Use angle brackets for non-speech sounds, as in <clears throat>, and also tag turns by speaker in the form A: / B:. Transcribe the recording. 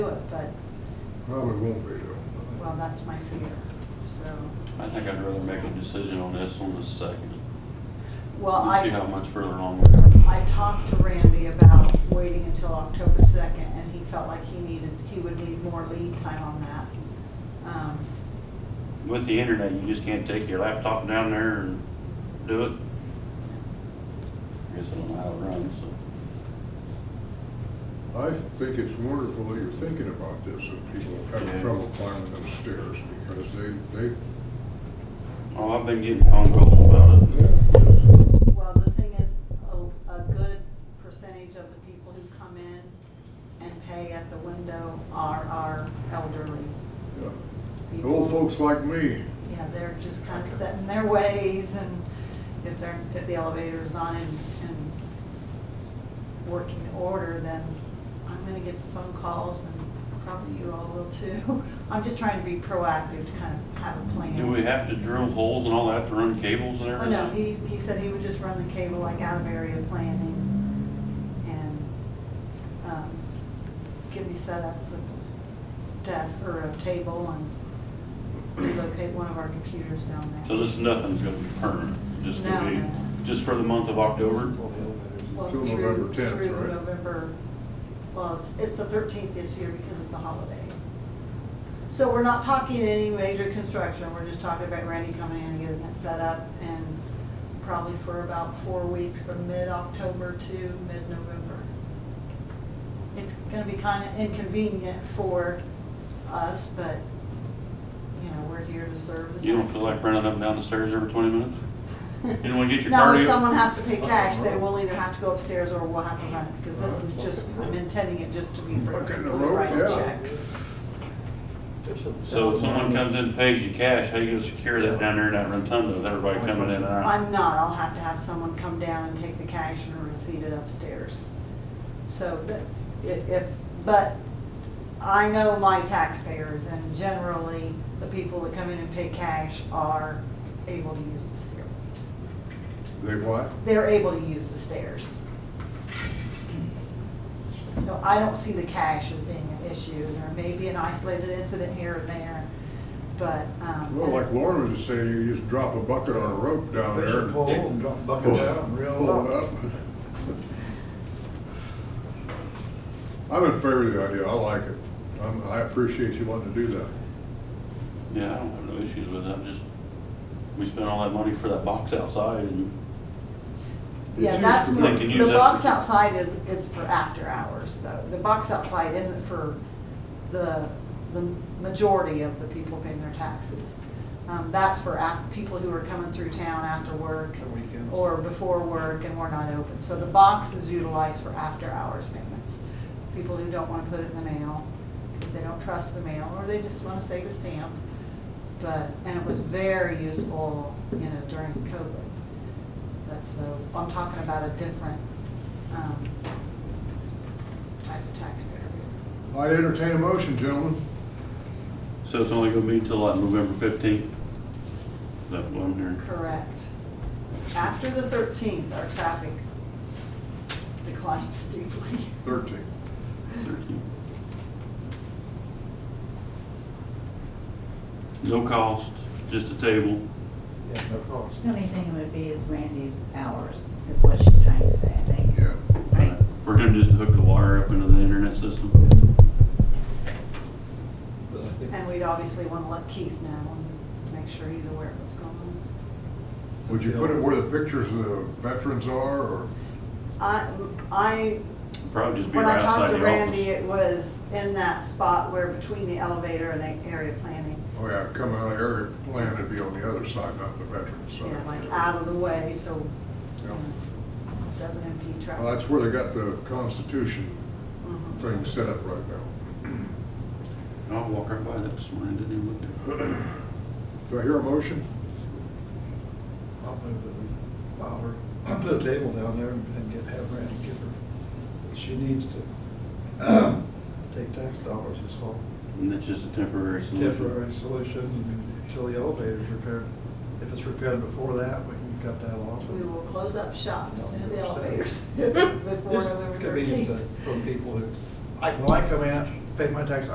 A: but,
B: Probably won't be though.
A: well, that's my fear, so.
C: I think I'd rather make a decision on this on the second.
A: Well,
C: We'll see how
A: I,
C: much further along we are.
A: I talked to Randy about waiting until October second, and he felt like he needed, he would need more lead time on that. Um,
C: With the internet, you just can't take your laptop down there and do it. I guess I don't know how it runs, so.
B: I think it's wonderful that you're thinking about this, and people have
C: Yeah.
B: trouble climbing those stairs because they, they,
C: Oh, I've been getting phone calls about it.
B: yeah.
A: Well, the thing is, a, a good percentage of the people who come in and pay at the window are our elderly
B: The
A: people.
B: Old folks like me,
A: Yeah, they're just kind of set in their ways and if they're, if the elevator's not in, in working order, then I'm gonna get the phone calls and probably you all will too. <laughs> I'm just trying to be proactive to kind of have a plan.
C: Do we have to drill holes and all that to run cables and
A: Oh,
C: everything?
A: no, he, he said he would just run the cable like out of area planning and, um, give me set up the desk or a table and relocate one of our computers down there.
C: So this, nothing's gonna be permanent, just
A: No,
C: gonna
A: no,
C: be,
A: no.
C: just for the month of October?
A: Well,
B: Till
A: through-
B: November 10th,
A: Through
B: right?
A: November, well, it's- it's the 13th this year because of the holiday. So we're not talking any major construction, we're just talking about Randy coming in and getting it set up and probably for about four weeks from mid-October to mid-November. It's gonna be kind of inconvenient for us, but, you know, we're here to serve. the
C: You don't feel like running up and down the stairs every twenty minutes?
A: you
C: don't wanna get your
A: Now, if
C: cardio? Oh,
A: someone has to pay cash, they will either have to go upstairs or we'll have to run it, because this is just, I'm intending it just to be for
B: Fucking
A: people
B: road,
A: writing
B: yeah.
A: checks.
C: So if someone comes in, and pays you cash, how you gonna secure that down there in that rotunda with everybody coming in and out?
A: I'm not, I'll have to have someone come down and take the cash and receipt it upstairs. So that, i- if, but I know my taxpayers, and generally, the people that come in and pay cash are able to use the stair.
B: they what?
A: they're able to use the stairs. So I don't see the cash as being an issue. There may be an isolated incident here and there, but, um.
B: Well, like Lauren was just saying, you just drop a bucket on a rope down
D: They
B: there.
D: should pull and dump bucket down, reel
B: Pull it
D: it
B: up.
D: up.
B: I'm in favor of the idea, I like it. I'm, I appreciate you wanting to do that.
C: Yeah, I don't have no issues with that, just, we spent all that money for that box outside and,
A: Yeah,
B: It's
A: that's,
B: used
C: They
B: for-
A: more-
C: can
A: the
C: use that.
A: box outside is, is for after hours, though. The box outside isn't for the, the majority of the people paying their taxes. Um, that's for af, people who are coming through town after work
D: For weekends.
A: or before work and we're not open. So the box is utilized for after-hours payments. People who don't wanna put it in the mail, because they don't trust the mail, or they just wanna save a stamp. But, and it was very useful, you know, during COVID. But so, I'm talking about a different, um, type of taxpayer.
B: I entertain a motion, gentlemen.
C: so it's only gonna be until like November fifteenth? That's what I'm hearing.
A: Correct. After the thirteenth, our traffic declines <laughs> steeply.
B: Thirteen.
C: 13. No cost, just a table.
D: Yeah, no cost.
E: The only thing it would be is Randy's hours, is what she's trying to say, I think.
B: Yeah.
E: Right.
C: We're gonna just hook the wire up into the internet system.
D: But I think-
A: And we'd obviously wanna let Keith know and make sure he's aware of what's going on.
B: Would you put it where the pictures of the veterans are, or?
A: I, I
C: Probably just be
A: When I
C: right
A: talked
C: outside
A: to
C: the
A: Randy,
C: office.
A: it was in that spot where between the elevator and the area planning.
B: Oh yeah, coming out of area plan, it'd be on the other side, not the veterans side.
A: Yeah, like out of the way, so
B: Yeah.
A: it doesn't impede traffic.
B: Well, that's where they got the Constitution
A: Mhm.
B: thing set up right now. <clears throat>
C: I'll walk right by that this morning, didn't even look at it.
B: Do I hear a motion?
D: I'll move that we file her, <clears throat> I'll put a table down there and and get, have Randy give her, she needs to <clears throat> take tax dollars, it's all
C: And it's just a temporary solution.
D: temporary solution, and until the elevator's repaired. If it's repaired before that, we can cut that off.
A: We will close up shop as soon as the elevators <laughs>
D: It's
A: before November
D: convenient to-
A: thirteenth.
D: For people who, I, when I come out, pay my tax,